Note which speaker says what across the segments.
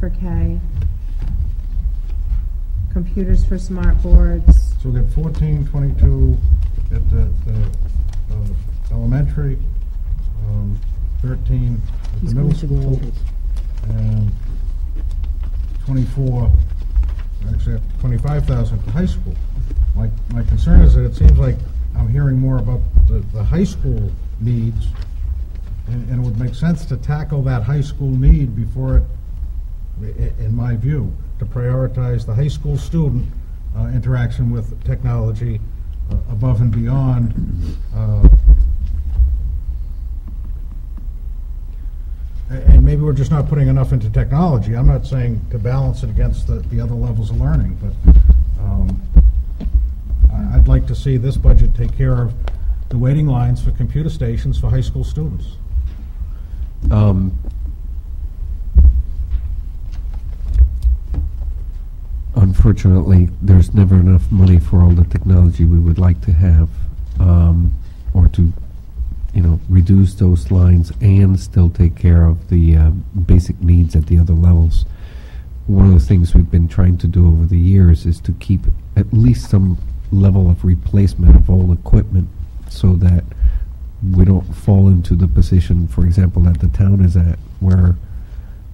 Speaker 1: for K. Computers for smart boards.
Speaker 2: So we got fourteen twenty-two at the, the, uh, elementary, um, thirteen at the
Speaker 3: He's
Speaker 2: middle
Speaker 3: going to the
Speaker 2: school,
Speaker 3: totals.
Speaker 2: and twenty-four, actually twenty-five thousand at the high school. My, my concern is that it seems like I'm hearing more about the, the high school needs, and, and it would make sense to tackle that high school need before it i- in my view, to prioritize the high school student uh, interaction with technology uh, above and beyond. uh, a- And maybe we're just not putting enough into technology. I'm not saying to balance it against the, the other levels of learning, but um, I- I'd like to see this budget take care of the waiting lines for computer stations for high school students.
Speaker 4: Um, Unfortunately, there's never enough money for all the technology we would like to have, um, or to, you know, reduce those lines and still take care of the um, basic needs at the other levels. One of the things we've been trying to do over the years is to keep at least some level of replacement of old equipment so that we don't fall into the position, for example, that the town is at, where,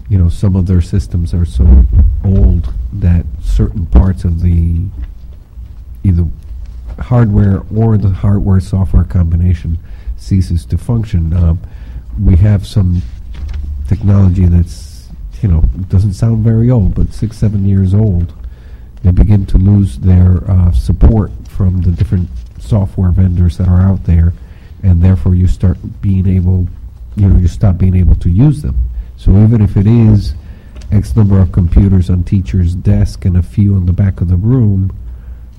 Speaker 4: you know, some of their systems are so old that certain parts of the either hardware or the hardware software combination ceases to function. Um, we have some technology that's, you know, doesn't sound very old, but six, seven years old. They begin to lose their uh, support from the different software vendors that are out there, and therefore you start being able, you know, you stop being able to use them. So even if it is X number of computers on teachers' desk and a few in the back of the room,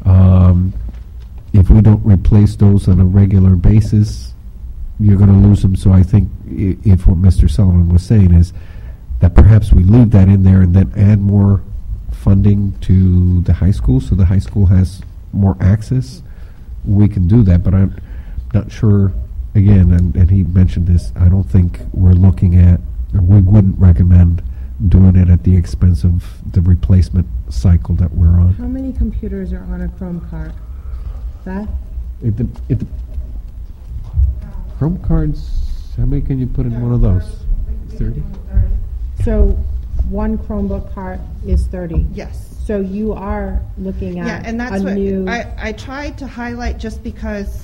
Speaker 4: um, if we don't replace those on a regular basis, you're going to lose them. So I think i- if what Mr. Sullivan was saying is that perhaps we leave that in there and then add more funding to the high school, so the high school has more access, we can do that, but I'm not sure, again, and, and he mentioned this, I don't think we're looking at, or we wouldn't recommend doing it at the expense of the replacement cycle that we're on.
Speaker 1: How many computers are on a Chrome card? Beth?
Speaker 4: If the, if the Chrome cards, how many can you put in one of those? Thirty?
Speaker 1: So one Chromebook cart is thirty.
Speaker 5: Yes.
Speaker 1: So you are looking
Speaker 5: Yeah,
Speaker 1: at
Speaker 5: and that's
Speaker 1: a new.
Speaker 5: what, I, I tried to highlight just because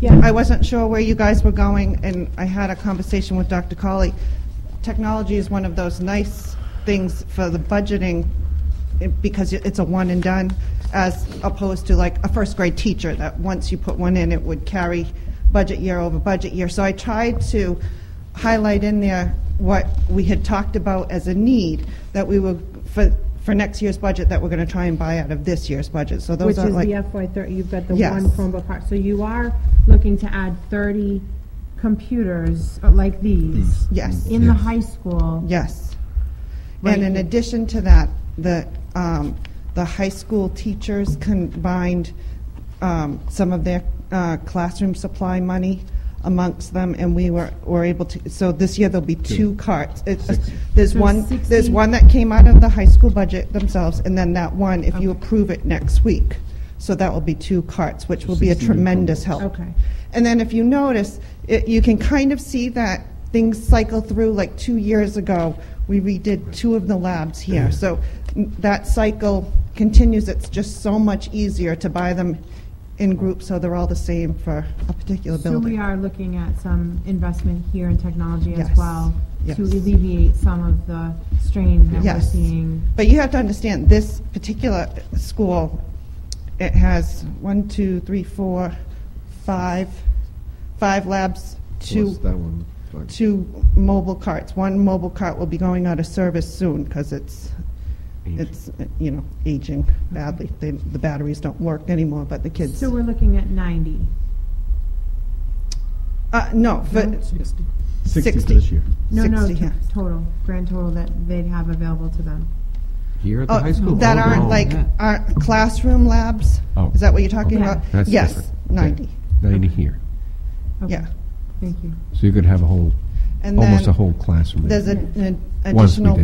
Speaker 1: Yeah.
Speaker 5: I wasn't sure where you guys were going, and I had a conversation with Dr. Colley. Technology is one of those nice things for the budgeting eh, because it- it's a one and done, as opposed to like a first grade teacher that once you put one in, it would carry budget year over budget year. So I tried to highlight in there what we had talked about as a need that we were for for next year's budget that we're going to try and buy out of this year's budget. So those
Speaker 1: Which
Speaker 5: are
Speaker 1: is
Speaker 5: like
Speaker 1: the FY thirty, you've got the
Speaker 5: Yes.
Speaker 1: one Chromebook cart. So you are looking to add thirty computers uh, like these
Speaker 5: yes.
Speaker 1: in the
Speaker 4: Yes.
Speaker 1: high school.
Speaker 5: Yes.
Speaker 1: Right.
Speaker 5: And in addition to that, the, um, the high school teachers combined, um, some of their, uh, classroom supply money amongst them, and we were, were able to, so this year there'll be two carts. It's- There's
Speaker 1: So
Speaker 5: one, there's
Speaker 1: 16
Speaker 5: one that came out of the high school budget themselves, and then that one, if you approve it next week. So that will be two carts, which will be a
Speaker 4: 16 improvements.
Speaker 5: tremendous help.
Speaker 1: Okay.
Speaker 5: And then if you notice, it, you can kind of see that things cycle through, like two years ago, we redid two of the labs here. So n- that cycle continues, it's just so much easier to buy them in groups, so they're all the same for a particular
Speaker 1: So we
Speaker 5: building.
Speaker 1: are looking at some investment here in technology as
Speaker 5: Yes.
Speaker 1: well
Speaker 5: Yes.
Speaker 1: to alleviate some of the strain that we're
Speaker 5: Yes.
Speaker 1: seeing.
Speaker 5: But you have to understand, this particular school, it has one, two, three, four, five, five labs, two.
Speaker 4: one?
Speaker 5: two mobile carts. One mobile cart will be going out of service soon because it's, it's, uh, you know, aging badly. They- The batteries don't work anymore, but the kids,
Speaker 1: So we're looking at ninety.
Speaker 5: uh, no,
Speaker 1: No?
Speaker 5: for
Speaker 3: Sixty for
Speaker 5: 60.
Speaker 3: this year.
Speaker 1: No, no,
Speaker 5: 60,
Speaker 1: to-
Speaker 5: yeah.
Speaker 1: total, grand total that they'd have available to them.
Speaker 4: Here at
Speaker 5: Oh, That aren't like, aren't classroom labs?
Speaker 4: Oh.
Speaker 5: Is that what you're talking
Speaker 1: Yeah.
Speaker 5: about?
Speaker 4: That's
Speaker 5: uh, Yes,
Speaker 4: different.
Speaker 5: ninety,
Speaker 4: Ninety here.
Speaker 1: Okay,
Speaker 5: yeah.
Speaker 1: Thank you.
Speaker 4: So you could have a whole,
Speaker 5: And
Speaker 4: almost a
Speaker 5: then
Speaker 4: whole classroom.
Speaker 5: there's
Speaker 4: there.
Speaker 5: an an
Speaker 4: Once we
Speaker 5: additional
Speaker 4: did